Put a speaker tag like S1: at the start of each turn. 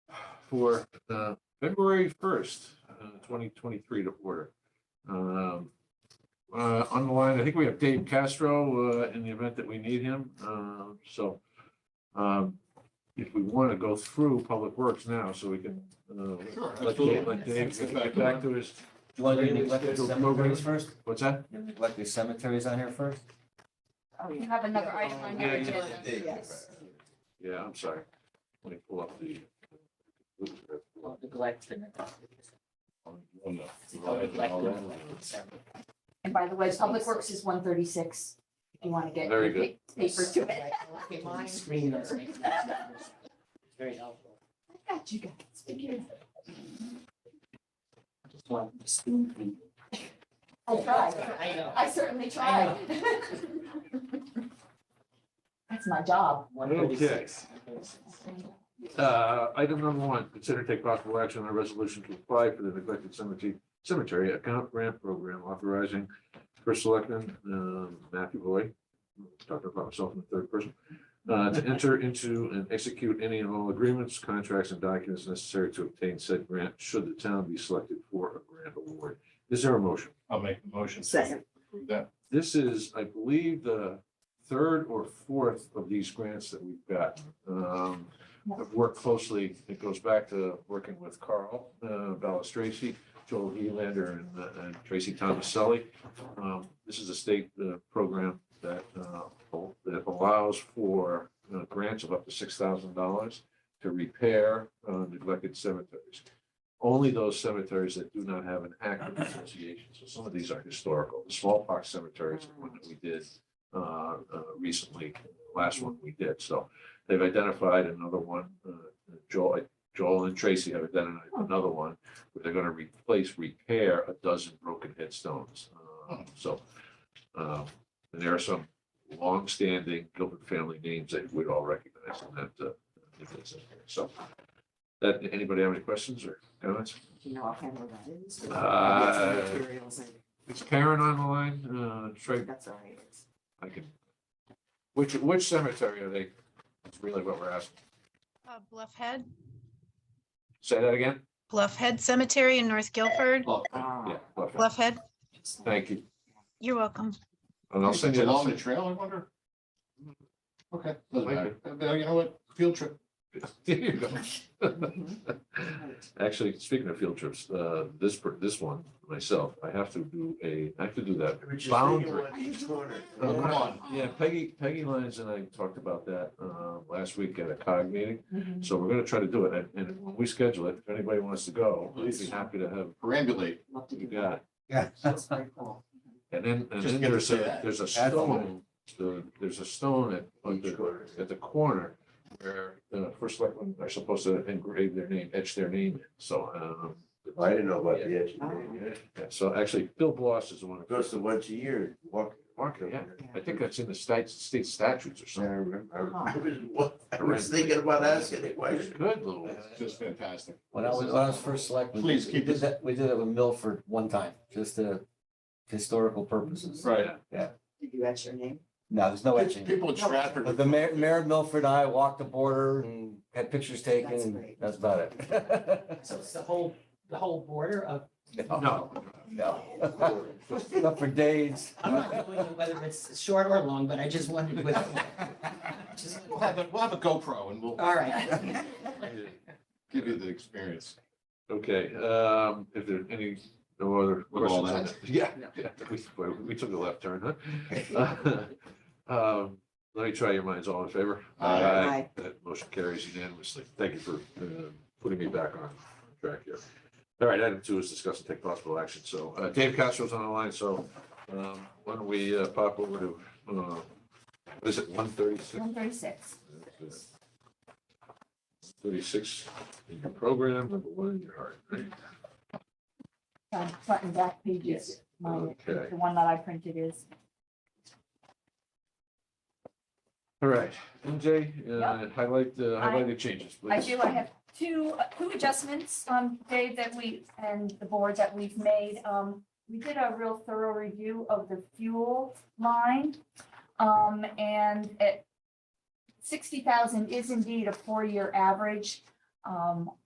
S1: for uh, February first, uh, twenty twenty-three to order. Um, uh, On the line, I think we have Dave Castro uh, in the event that we need him. Uh, So um, if we want to go through Public Works now, so we can uh,
S2: Sure,
S1: let
S2: absolutely.
S1: Dave, let Dave
S2: Let's get
S1: get
S2: back to
S1: back to his,
S3: You want to do neglected
S1: Scheduled programs?
S3: cemeteries first?
S1: what's that?
S3: You neglected cemeteries on here first?
S4: You have another item on your
S1: Yeah,
S4: agenda.
S3: yeah, yeah.
S4: Oh, Yes.
S1: Yeah, I'm sorry. Let me pull up the. uh, Oh, no.
S4: And by the way, Public Works is one thirty-six, if you want to get.
S1: Very good.
S4: pa- Paper to it.
S5: Screen or something. Very helpful.
S4: I got you guys. Figure it out.
S5: I Just want to spoon feed.
S4: I tried.
S5: I know.
S4: I certainly tried. That's my job.
S5: One thirty-six.
S1: Uh, item number one, consider take possible action on a resolution to apply for the neglected cemetery, cemetery account grant program authorizing first selectman, um, Matthew Boyd, talking about myself in the third person, uh, to enter into and execute any and all agreements, contracts, and documents necessary to obtain said grant, should the town be selected for a grant award. Is there a motion?
S2: I'll make the motion. to
S5: Second.
S2: approve That,
S1: This is, I believe, the third or fourth of these grants that we've got. Um, I've worked closely, it goes back to working with Carl, uh, Balistraci, Joel Helander and, uh, and Tracy Thomaselli. Um, this is a state, uh, program that, uh, al- that allows for uh, grants of up to six thousand dollars to repair, uh, neglected cemeteries. Only those cemeteries that do not have an active association. So some of these are historical. The smallpox cemetery is the one that we did, uh, uh, recently, last one we did. So they've identified another one, uh, Joel, Joel and Tracy have identified another one where they're gonna replace, repair a dozen broken headstones. Uh, So, um, and there are some longstanding Gilbert family names that we'd all recognize in that, uh, if it's in here. So that, anybody have any questions or comments?
S5: You know, I'll handle that. It's-
S1: Uh,
S5: Materials and-
S1: Is Karen on the line? Uh, Should
S5: That's all right. It's-
S1: I, I can. Which, which cemetery are they? That's really what we're asking.
S6: Uh, Bluff Head,
S1: Say that again?
S6: Bluff Head Cemetery in North Guilford.
S1: Yeah,
S5: ah,
S1: okay.
S6: Bluff Head,
S1: Thank you.
S6: you're welcome.
S1: And I'll
S2: Is
S1: send
S2: it
S1: you. I'll
S2: Along the
S1: send-
S2: trail, I wonder? Okay, doesn't
S1: Might
S2: matter. Uh, You know what? Field trip.
S1: There you go.
S5: mhm. Right.
S1: Actually, speaking of field trips, uh, this, per- this one, myself, I have to do a, I have to do that. Boundary. Oh,
S2: Come on.
S1: Yeah, Peggy, Peggy Lyons and I talked about that, uh, last week at a COG meeting. So we're gonna try to do it, and- and when we schedule it, if anybody wants to go, I'd be happy to have,
S2: Perambulate.
S5: Love to
S1: you
S5: do
S1: got.
S5: that.
S1: it.
S3: Yeah.
S5: That's very cool.
S1: And then, and
S2: Just
S1: then
S2: get to
S1: there's
S2: say
S1: a,
S2: that.
S1: there's a
S2: Add the
S1: stone, the- there's a stone at, at the, at the corner where the first selectmen are supposed to engrave their name, etch their name, in. so, um.
S7: I didn't know about the edge.
S1: yeah, So actually, Bill Bloss is the one. who-
S7: Goes to once a year, walk.
S1: Mark, yeah, I think that's in the state, state statutes or
S7: I
S1: something.
S7: remember. I was- I was thinking about asking it, why?
S1: It's Good little.
S2: That's just fantastic.
S3: When I was, when I was first selectman.
S2: Please
S3: we
S2: keep
S3: did
S2: this-
S3: that- We did it with Milford one time, just to historical
S5: Mm-hmm.
S3: purposes.
S2: Right.
S5: Did you etch your name?
S3: No, there's no etching.
S2: People in Stratford.
S3: But the mayor, Mayor of Milford and I walked the border and had pictures taken,
S5: That's
S3: and
S5: great.
S3: that's about it.
S8: So it's the whole, the whole border of,
S1: No,
S3: No. Not for days.
S8: I'm not doing it whether it's short or long, but I just wondered with. just-
S2: We'll have, a- we'll have a GoPro and we'll
S8: All right.
S2: give you the experience.
S1: okay, um, if there are any, no other
S2: With all
S1: questions on that,
S2: that.
S1: yeah, yeah, we, we took a left turn, huh? Um, let me try your minds, all in favor?
S2: Aye.
S5: Aye.
S1: That motion carries unanimously, thank you for, uh, putting me back on track here. All right, item two is discuss and take possible action, so, uh, Dave Castro's on the line, so, um, why don't we, uh, pop over to, uh, what is it, one thirty-six?
S4: One thirty-six.
S1: Thirty-six in your program, number one in your heart, right?
S4: Front and back pages. Mine-
S1: Okay.
S4: The one that I printed is.
S1: All right, MJ, uh, highlight, the- highlight the changes, please.
S4: I do, I have two, uh, two adjustments, um, Dave, that we, and the board that we've made. Um, we did a real thorough review of the fuel line. Um, and it, sixty thousand is indeed a four-year average. Um,